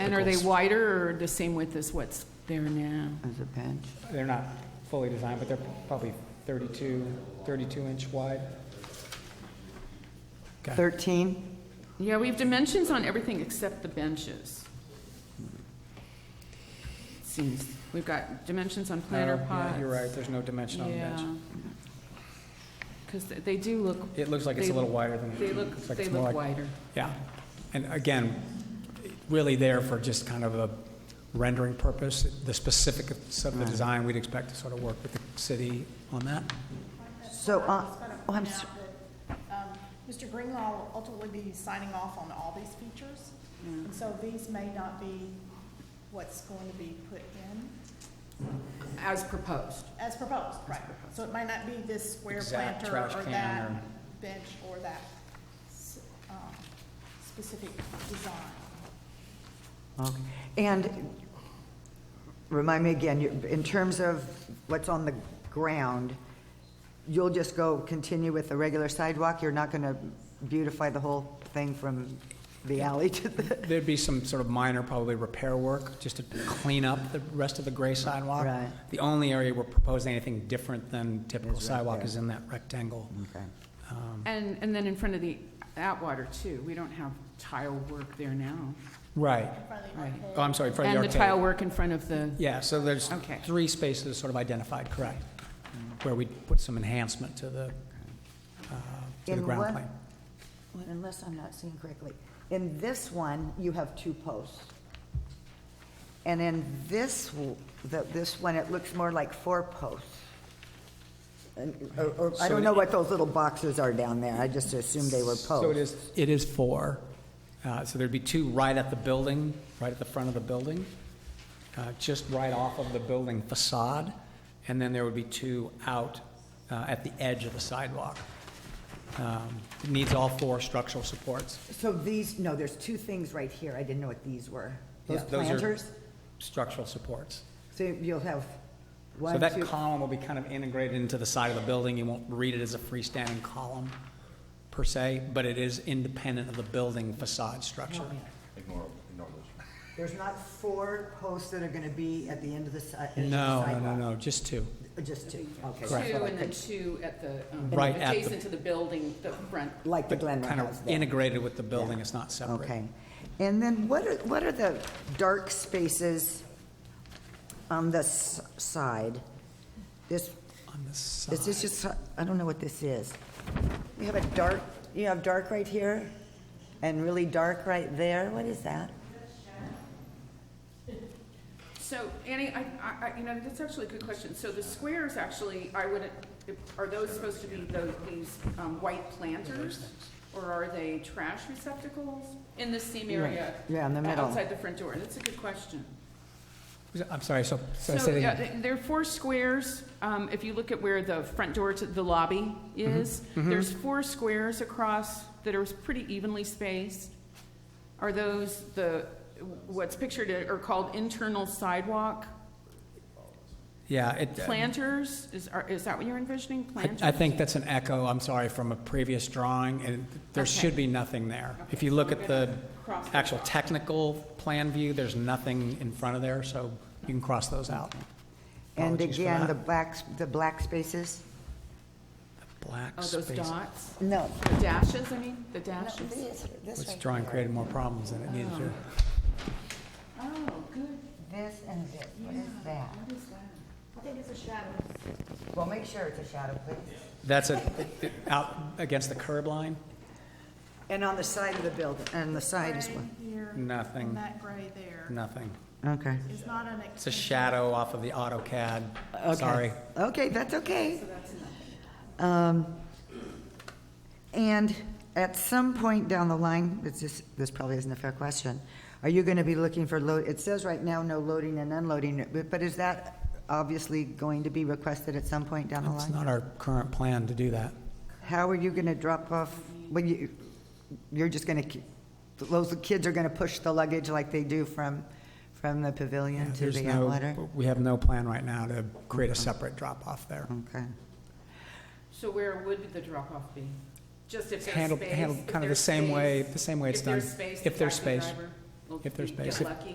And are they Pickles. wider or the same width as what's there now? as a bench. They're not fully designed, but they're probably 32, 32 inch wide. 13? Yeah, we have dimensions on everything except the benches. Seems, we've got dimensions on planter No, Uh, Oh, yeah, pots. You're right, there's no dimension on the bench. Because they do look, It looks like it's a They- little wider than. they look, it's like they it's more look like- wider. Yeah, and again, really there for just kind of a rendering purpose. The specifics of the design, we'd expect to sort of work with the city on that. So, uh, Just gonna oh, I'm, point s- out that, um, Mr. Greenlaw will ultimately be signing off on all these features, and so these may not be what's going to be put in as proposed. as proposed, right? So it might not be this square Exact planter trash or can that or- bench or that s- um, specific design. okay. and remind me again, you- in terms of what's on the ground, you'll just go continue with the regular sidewalk? You're not going to beautify the whole thing from the alley to the, There'd be some sort of minor, probably repair work, just to clean up the rest of the gray sidewalk. Right. The only area we're proposing anything different than typical Is right sidewalk there. Mm-hmm. is in that rectangle. okay. Um, And, and then in front of the Atwater too, we don't have tile work there now, Right. right? Oh, I'm sorry, in front of the And the arcade. tile work in front of the, Yeah, so there's Okay. three spaces sort of identified, correct, where we put some enhancement to the, uh, to the In ground what- plane. Well, Unless I'm not seeing correctly. In this one, you have two posts. And in this, w- the- this one, it looks more like four posts. And- or- or- I So don't it- know what those little boxes are down there. I just assumed they were So it posts. is, it is four. Uh, So there'd be two right at the building, right at the front of the building, uh, just right off of the building facade, and then there would be two out uh, at the edge of the sidewalk. Um, It needs all four structural supports. So these, no, there's two things right here. I didn't know what these were. Those Yeah, those are planters? Structural supports. So you'll have So one, that two, column will be kind of integrated into the side of the building. You won't read it as a freestanding column per se, but it is independent of the building facade structure. Oh, Ignore, ignore those. there's not four posts that are going to be at the end of the si- edge of the No, no, no, sidewalk? no, just two. Just two, okay. two that's what I and then could- two at the, um, Right at the- adjacent to the building, the front. Like the But Glen kind House of there. integrated with the building, Yeah. it's not separate. Okay. And then what are, what are the dark spaces on the s- side? This, On the is this side, just, I don't know what this is. You have a dark, you have dark right here and really dark right there. What is that? So Annie, I, I, I- you know, that's actually a good question. So the squares actually, I would, are those supposed to be those, these, um, white planters? Or are they trash receptacles in the seam area? Yeah, in the middle. Outside the front door, that's a good question. I'm sorry, so, so I So, said yeah, again. th- there are four squares, um, if you look at where the front door to the lobby Mm-hmm. is, there's four squares across that are pretty evenly spaced. Are those the, what's pictured are called internal sidewalk yeah, it, planters? Is, are- is that what you're envisioning, I, planters? I think that's an echo, I'm sorry, from a previous drawing, and there Okay. should be nothing there. If Okay, you so look we're at the gonna cross those actual off. technical plan view, there's nothing in front of there, so you can cross those out. And Apologies for again, that. the black, s- the black spaces? Black Oh, those space. dots, No. the dashes, I mean, the No, dashes? this- this This right Uh-huh. drawing here. created more problems than it needed to. Oh, good, This and this, what is that? what is that? Well, make sure it's a shadow, please. That's a, out against the curb line? And on the side of the building, and the side as well. Gray here, Nothing. and that gray there Nothing. Okay. is not an It's a extension. shadow off of the AutoCAD. Okay. Sorry. Okay, that's okay. Um, And at some point down the line, it's just, this probably isn't a fair question, are you going to be looking for load, it says right now, no loading and unloading, but- but is that obviously going to be requested at some point down the It's line? not our current plan to do that. How are you going to drop off, when you, you're just going to, those kids are going to push the luggage like they do from, from the pavilion to There's the no- outletter? We have no plan right now to create a separate drop-off there. Okay. So where would the drop-off be? Just if there's Handled, space? handled if kind of the there's same way, space? the same way it's If done. there's space, the If there's taxi space. driver will If there's get space. lucky.